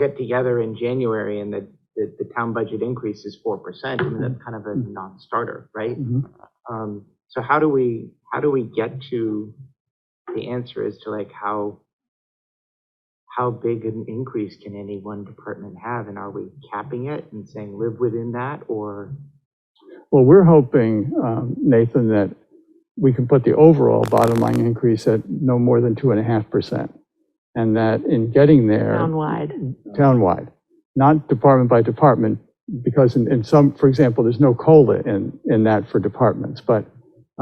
get together in January and the, the, the town budget increase is four percent, I mean, that's kind of a non-starter, right? Mhm. Um, so how do we, how do we get to, the answer as to like how, how big an increase can any one department have? And are we capping it and saying live within that or? Well, we're hoping, um, Nathan, that we can put the overall bottom line increase at no more than 2.5%. And that in getting there. townwide. townwide, not department by department, because in, in some, for example, there's no COLA in, in that for departments, but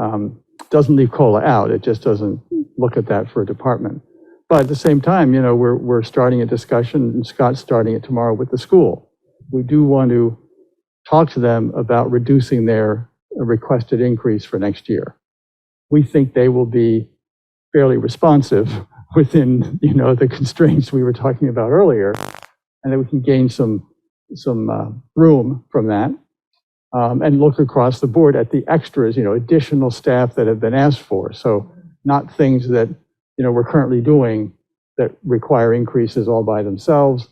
um, doesn't leave COLA out, it just doesn't look at that for a department. But at the same time, you know, we're, we're starting a discussion, and Scott's starting it tomorrow with the school. We do want to talk to them about reducing their requested increase for next year. We think they will be fairly responsive within, you know, the constraints we were talking about earlier and then we can gain some, some uh, room from that. Um, And look across the board at the extras, you know, additional staff that have been asked for. So not things that, you know, we're currently doing that require increases all by themselves.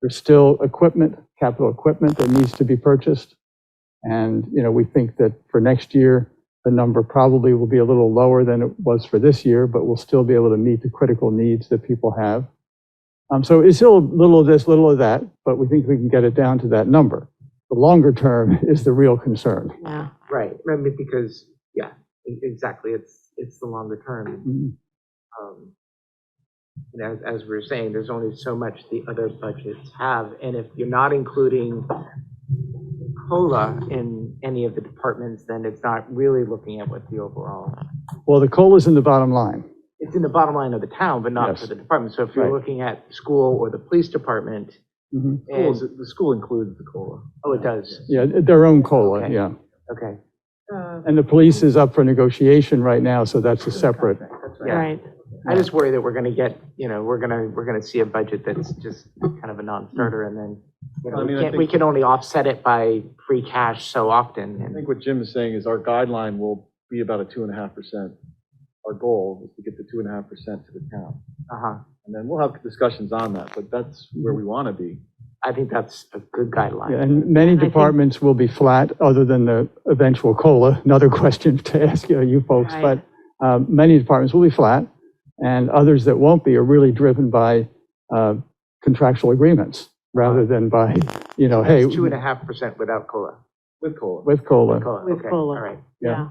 There's still equipment, capital equipment that needs to be purchased. And, you know, we think that for next year, the number probably will be a little lower than it was for this year, but we'll still be able to meet the critical needs that people have. Um, So it's still a little of this, little of that, but we think we can get it down to that number. The longer term is the real concern. Yeah. Right, I mean, because, yeah, e- exactly, it's, it's the longer term. Mm-hmm. um, And as, as we were saying, there's only so much the other budgets have, and if you're not including COLA in any of the departments, then it's not really looking at what the overall, Well, the COLA is in the bottom line. it's in the bottom line of the town, but not for Yes. the department. So if you're Right. Mm-hmm. looking at school or the police department, and, Schools- The school includes the COLA. oh, it does, Yeah, their own COLA, Okay. yeah. okay. And the police is up for negotiation right now, so that's a separate. Yeah. Right. I just worry that we're gonna get, you know, we're gonna, we're gonna see a budget that's just kind of a non-starter and then, you know, I we mean, I can't, we think- can only offset it by free cash so often. I and- think what Jim is saying is our guideline will be about a two and a half percent. Our goal is to get the two and a half percent to the town. Uh-huh. And then we'll have discussions on that, but that's where we want to be. I think that's a good Yeah, guideline. And many I think- departments will be flat, other than the eventual COLA, another question to ask uh, you you folks, Right. but um, many departments will be flat, and others that won't be are really driven by uh, contractual agreements, rather than by, you know, hey, It's two and a half percent without COLA. With COLA. with COLA. COLA, With okay, all COLA. right. Yeah. Yeah.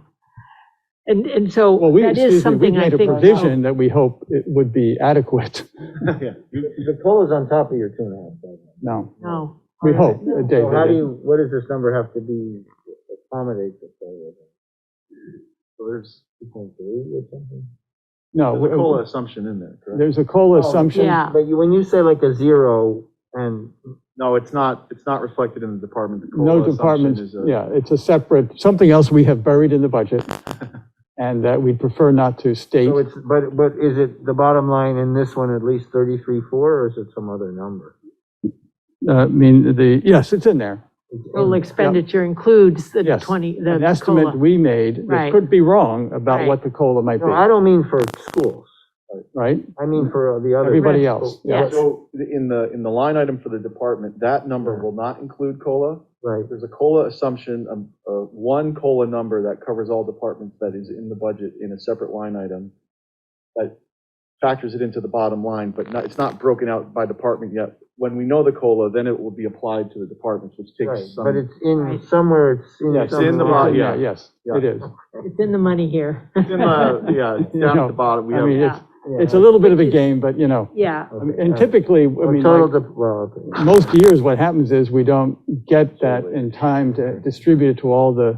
And, and so Well, we, that is excuse me, we something I made a think. provision that we hope it would be adequate. Yeah. The COLA's on top of your two and a half thousand. No, No. we all hope, right. uh, So how do David. you, what does this number have to be accommodate the COLA? So there's, Two point three or something? No, there's a w- COLA assumption in there, correct? there's a COLA Oh, assumption. Yeah. But you, when you say like a zero and, No, it's not, it's not reflected in the department. The No COLA assumption department, is a- yeah, it's a separate, something else we have buried in the budget, and that we'd prefer not to state. so it's, but, but is it the bottom line in this one at least thirty-three, four, or is it some other number? Uh, I mean, the, yes, it's in there. It's Total in- expenditure includes the Yes. 20, An the estimate COLA. we made that Right. could be wrong about Right. what the COLA might No, I be, don't mean for schools. right? I mean for the other. Everybody else, yeah. Yes. So in the, in the line item for the department, that number will not include COLA. Right. There's a COLA assumption, um, uh, one COLA number that covers all departments that is in the budget in a separate line item that factors it into the bottom line, but not, it's not broken out by department yet. When we know the COLA, then it will be applied to the departments, which Right, takes some. but it's in, Right. somewhere it's in. Yeah, it's some in the line. bottom, yeah. Yes, Yeah. it is. It's in the money here. It's in the- Yeah, it's down at the bottom. We I have- mean, it's, Yeah. Yeah. it's a little bit of a Which is- game, but you know, Yeah. I mean, and typically, I Or mean, Total, like, dep- well, okay. most years, what happens is we don't get that in time to distribute it to all the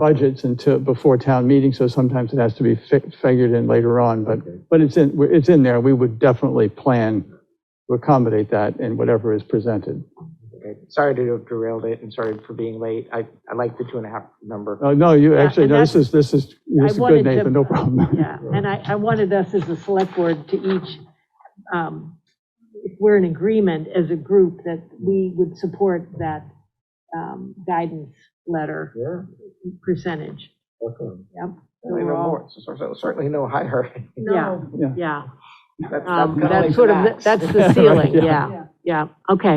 budgets until, before town meeting, so sometimes it has to be fi- figured in later on, but, but it's in, it's in there, we would definitely plan to accommodate that in whatever is presented. Okay. Sorry to have derailed it and sorry for being late. I, I like the two and a half number. Oh, no, you, actually, and no, this that's- is, this is, this is wanted good, to- Nathan, no problem. Yeah, and I, I wanted us as a select board to each, um, if we're in agreement as a group, that we would support that um, guidance letter Yeah, percentage. okay. Yep. So Certainly we're no all- more, so- so- certainly no higher. Yeah, Yeah. yeah. That's- that's Um, kinda That's like sort of, the- max. that's the ceiling, Yeah. yeah, yeah, okay.